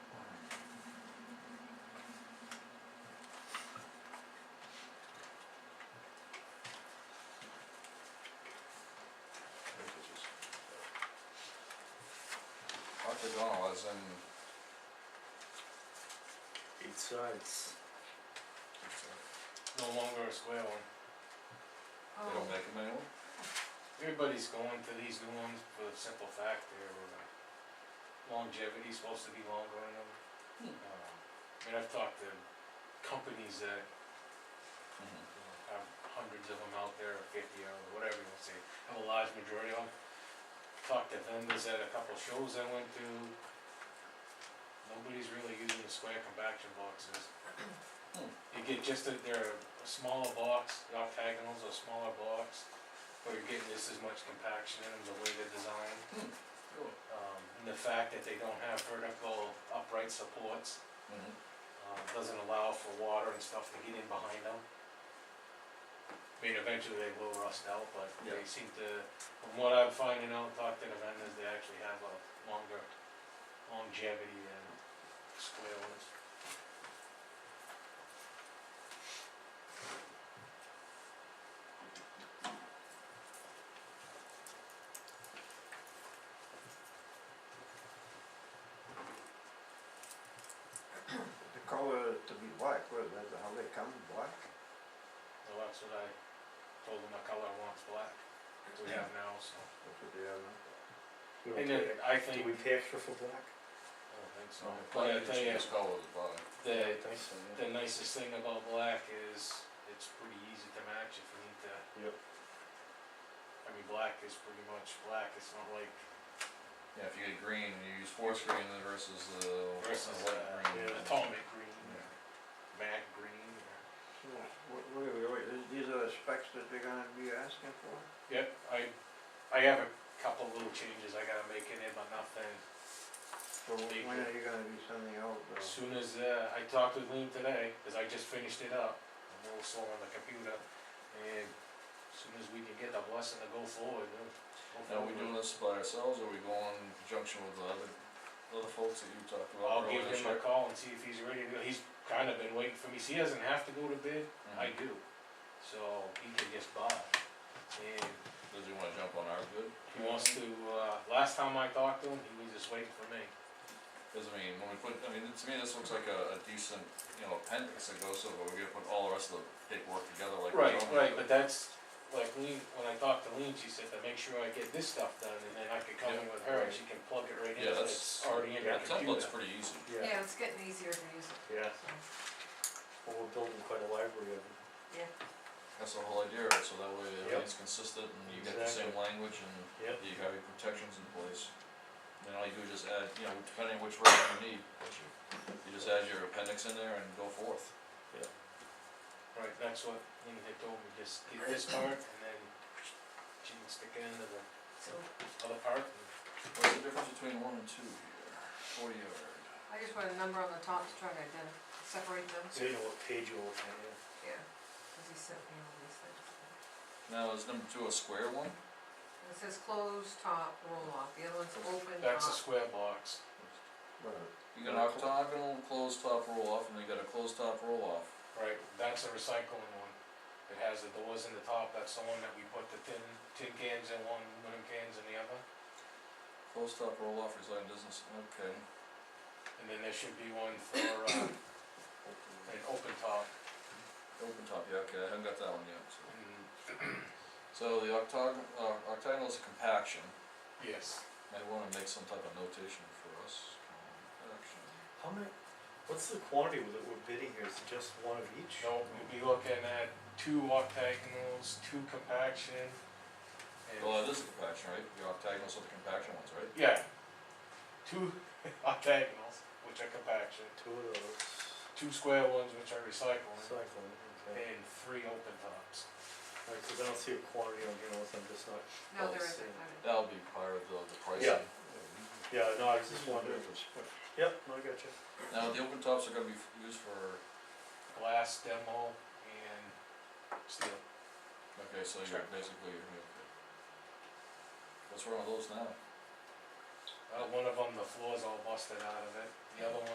Uh, dollars and Eight sides. no longer a square one. they Oh, don't make them anymore? Everybody's going to these new ones for the simple fact they're uh, longevity's supposed to be longer in them. Um, And I've talked to companies that Mhm. you know, have hundreds of them out there, or fifty or whatever you wanna say, have a large majority of them. Talked to vendors at a couple shows I went to. Nobody's really using the square compaction boxes. Hmm. You get just a, they're a smaller box, the octagonals are a smaller box, but you're getting this as much compaction in them, the way they're designed. Cool. Um, and the fact that they don't have vertical upright supports, Mhm. um, doesn't allow for water and stuff to get in behind them. I mean, eventually they will rust out, but Yeah. they seem to, from what I'm finding out, talking to the vendors, they actually have a longer longevity than square ones. The color to be black, well, that's how they come, black. So that's what I told them, the color I want's black, that we have now, so. That's what they are now. We don't And then pay- I Do think, we pay extra for black? I don't think so, So, but I tell you, it's colours, but the, Thanks. the nicest thing about black is, it's pretty easy to match if you need to. Yep. I mean, black is pretty much black, it's not like yeah, if you get green, you use forest green versus the versus the uh, light green. atomic green, or Yeah. matte green, or. Yeah, what, what are we, wait, these- these are the specs that they're gonna be asking for? Yep, I, I have a couple little changes I gotta make in it, but nothing. So Big. when are you gonna be sending out As the, soon as, uh, I talked with Lean today, cause I just finished it up, I'm a little slow on the computer, and as soon as we can get the blessing to go forward, then. Now, are we doing this by ourselves, or we going in conjunction with the other, other folks that you talked about? I'll earlier give this him year? a call and see if he's ready to go, he's kinda been waiting for me, he doesn't have to go to bid, I Mhm. do, so he can just buy. And Mm-hmm. Does he wanna jump on our good? He wants to, uh, last time I talked to him, he was just waiting for me. Cause I mean, when we put, I mean, to me, this looks like a, a decent, you know, appendix that goes over, we're gonna put all the rest of the paperwork together like. we normally do. But that's, like, Lean, when I talked to Lean, she said to make sure I get this stuff done, and then I could come in with her, and she can plug it right in, Yeah, so that's, it's already in her that template's computer. pretty easy. Yeah, Yeah, it's getting easier to use it, yeah, so, well, we're building quite a library of them. yeah. That's the whole idea, right, so that way Yep. everything's consistent and you get the same language and Yep. you have your protections in place. Then all you do is just add, you know, depending which version you need, you just add your appendix in there and go forth. Right, that's what Lean had told me, just get this part, and then she can stick it into the So other part, and What's the difference between one and two here? Forty yard. I just put a number on the top to try to identi- separate them, So you know what page you're looking at, yeah. yeah, cause he sent me all these things. Now, is number two a square one? And It says closed top roll off, the other one's open that's a top, square box. well, You got an octagonal closed top roll off and you got a closed top roll off. Right, that's a recycling one. It has the doors in the top, that's the one that we put the tin, tin cans in one, aluminum cans in the other. Closed top roll off resign business, okay. And then there should be one for, uh, an open top, Open top, yeah, okay, I haven't got that one yet, so. and, So the octagon, uh, octagonal is a compaction. yes. Might wanna make some type of notation for us, compaction. How many, what's the quantity that we're bidding here, is it just one of each? No, we'll be looking at two octagonals, two compaction, Well, and, it is a compaction, right? The octagonals are the compaction ones, right? yeah. Two octagonals, which are compaction, Two of those, two square ones, which are recycling, cycling, okay. and three open tops. Alright, cause I don't see a quantity on here unless I'm just not, no, there Oh, isn't, same. I don't- That'll be part of the, the Yeah. pricing. yeah, no, I was This just one wondering. is a spec. Yep, no, I got you. Now, the open tops are gonna be f- used for, Glass demo and steel. okay, so you're Sure. basically, you're, okay. What's wrong with those now? Uh, one of them, the floor's all busted out of it, the other one.